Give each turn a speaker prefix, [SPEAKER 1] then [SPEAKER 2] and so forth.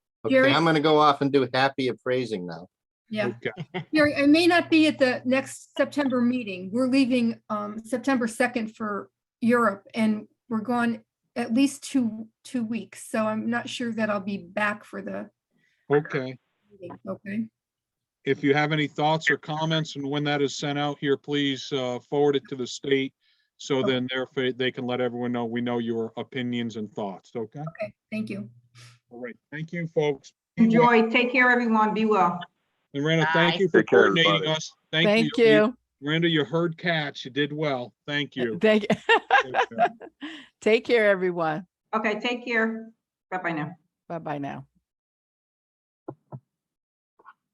[SPEAKER 1] Jerry?
[SPEAKER 2] Okay, I'm gonna go off and do happy appraising now.
[SPEAKER 1] Yeah,
[SPEAKER 3] Okay.
[SPEAKER 1] Gary, I may not be at the next September meeting. We're leaving um September second for Europe and we're gone at least two, two weeks. So I'm not sure that I'll be back for the
[SPEAKER 3] Okay.
[SPEAKER 1] meeting, okay?
[SPEAKER 3] If you have any thoughts or comments and when that is sent out here, please uh, forward it to the state. So then therefore they can let everyone know, we know your opinions and thoughts. Okay.
[SPEAKER 1] Okay, thank you.
[SPEAKER 3] All right. Thank you, folks.
[SPEAKER 4] Enjoy. Take care, everyone. Be well.
[SPEAKER 3] Miranda, thank
[SPEAKER 5] Bye.
[SPEAKER 3] you for
[SPEAKER 6] Take care,
[SPEAKER 3] coordinating
[SPEAKER 6] everybody.
[SPEAKER 3] us.
[SPEAKER 7] Thank you.
[SPEAKER 3] Miranda, you heard cats. You did well. Thank you.
[SPEAKER 7] Thank,
[SPEAKER 3] Okay.
[SPEAKER 7] take care, everyone.
[SPEAKER 4] Okay, take care. Bye-bye now.
[SPEAKER 7] Bye-bye now.